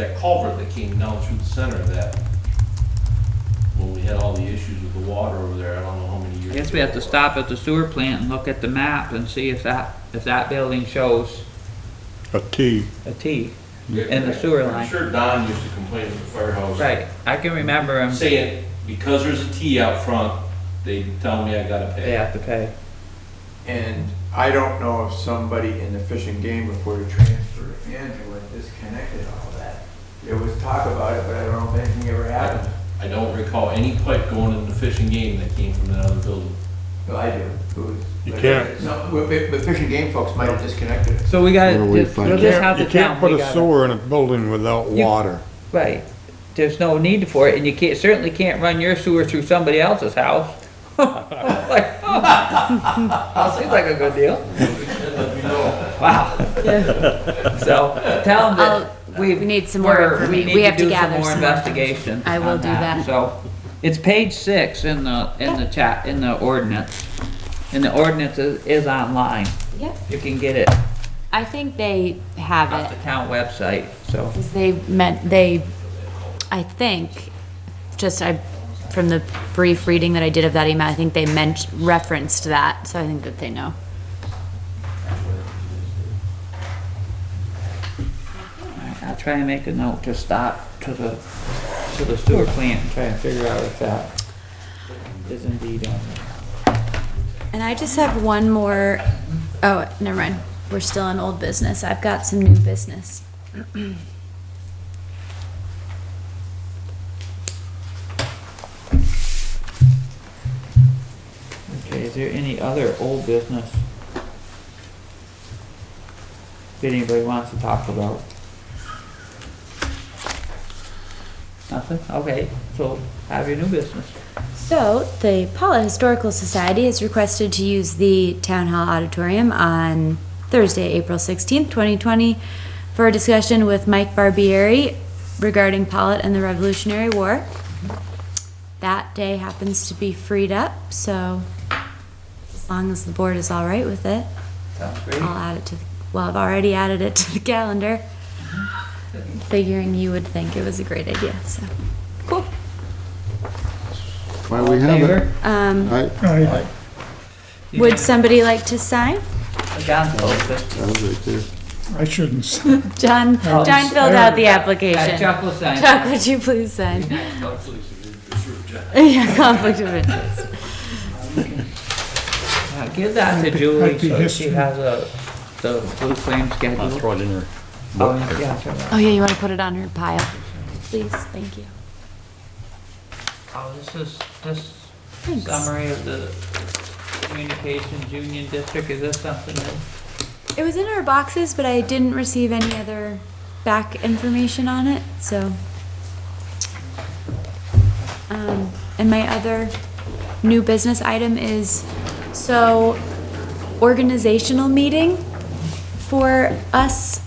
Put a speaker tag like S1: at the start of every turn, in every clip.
S1: that culvert that came down through the center of that, when we had all the issues with the water over there, I don't know how many years.
S2: I guess we
S1: ago.
S2: have to stop at the sewer plant and look at the map and see if that, if that building shows
S3: a T.
S2: a T.
S1: Yeah,
S2: and the sewer
S1: I'm
S2: line.
S1: sure Don used to complain at the firehouse.
S2: Right, I can remember him,
S1: Saying, because there's a T out front, they tell me I gotta
S2: they
S1: pay.
S2: have to pay.
S4: And I don't know if somebody in the fishing game Authority transfer manager would disconnected all that. There was talk about it, but I don't know if anything ever happened.
S1: I don't recall any pipe going in the fishing game that came from that other building.
S4: But I do. It was-
S3: You can't.
S4: No, but, but but fishing game folks might have disconnected it.
S2: So we gotta,
S5: Where we
S2: just-
S5: find
S2: we'll
S5: it.
S2: just have to
S3: You can't
S2: tell
S3: put
S2: them, we
S3: a
S2: gotta,
S3: sewer in a building without
S2: You-
S3: water.
S2: right. There's no need for it, and you can't, certainly can't run your sewer through somebody else's house. Like, oh, that Seems like a good deal. Wow. So, tell them
S6: I'll-
S2: that we.
S6: we need some more
S2: we're-
S6: informa-
S2: we
S6: we
S2: need to
S6: have to
S2: do some
S6: gather
S2: more
S6: some more
S2: Investigation.
S6: I will
S2: on
S6: do that.
S2: So, it's page six in the, in the chat, in the ordinance. And the ordinance is, is online.
S6: Yep,
S2: You can get it
S6: I think they have
S2: off the
S6: it,
S2: town website, so.
S6: 'cause they meant, they, I think, just I, from the brief reading that I did of that email, I think they meant, referenced that, so I think that they know.
S2: I'll try and make a note to stop to the, to the sewer plant and try and figure out if that is indeed on there.
S6: And I just have one more, oh, never mind, we're still in old business, I've got some new business.
S2: Okay, is there any other old business that anybody wants to talk about? Nothing? Okay, so have your new business.
S6: So, the Paula Historical Society is requested to use the Town Hall Auditorium on Thursday, April 16th, 2020, for a discussion with Mike Barbieri regarding Pollitt and the Revolutionary War. That day happens to be freed up, so as long as the board is all right with it,
S2: Sounds great.
S6: I'll add it to, the- well, I've already added it to the calendar, figuring you would think it was a great idea, so. Cool.
S5: Why we have it.
S2: Favor?
S6: Um,
S5: I,
S6: Would somebody like to sign?
S2: John's old business.
S5: that was right there.
S3: I shouldn't say.
S6: John,
S2: Oh,
S6: John filled out the
S2: Uh,
S6: application.
S2: Chuck will sign.
S6: Chuck, would you please sign?
S1: John.
S6: Yeah, conflict of interest.
S2: Uh, Give that to Julie so she has a, the blue flame schedule. I'll throw it in her. Oh, yeah, sure.
S6: Oh, yeah, you want to put it on her pile? Please, thank you.
S2: Oh, this is, this
S6: Thanks.
S2: summary of the communications union district, is this something that?
S6: It was in our boxes, but I didn't receive any other back information on it, so. Um, and my other new business item is, so organizational meeting for us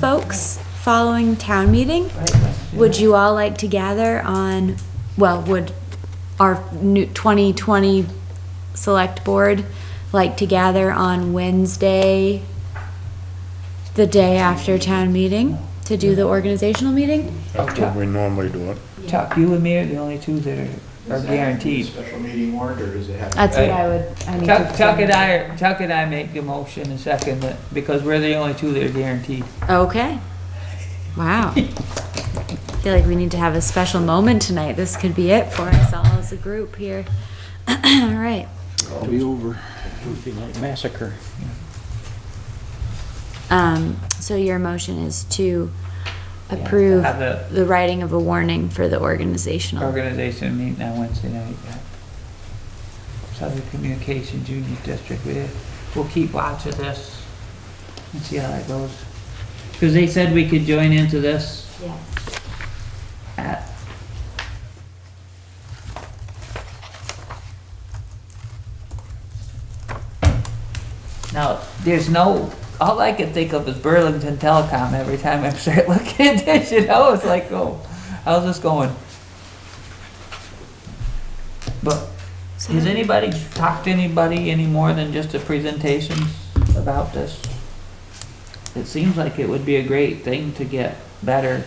S6: folks following town meeting. Would you all like to gather on, well, would our new twenty twenty select board like to gather on Wednesday, the day after town meeting, to do the organizational meeting?
S3: That's what we normally do it.
S2: Chuck, you and me are the only two that are, are guaranteed.
S4: Special meeting warrant, or does it have?
S6: That's what I would, I need
S2: Chuck,
S6: to.
S2: Chuck and I, are- Chuck and I make the motion and second it, because we're the only two that are guaranteed.
S6: Okay. Wow. I feel like we need to have a special moment tonight. This could be it for us all as a group here. All right.
S5: It'll be over.
S6: Um, so your motion is to approve
S2: Have the
S6: the writing of a warning for the organizational.
S2: organization meeting on Wednesday night. yeah. Southern Communications Union District, we, we'll keep watch of this and see how that goes. Cause they said we could join into this
S6: Yeah.
S2: at Now, there's no, all I can think of is Burlington Telecom every time I start looking at this, you know, it's like, oh, how's this going? But has anybody talked to anybody any more than just the presentations about this? It seems like it would be a great thing to get better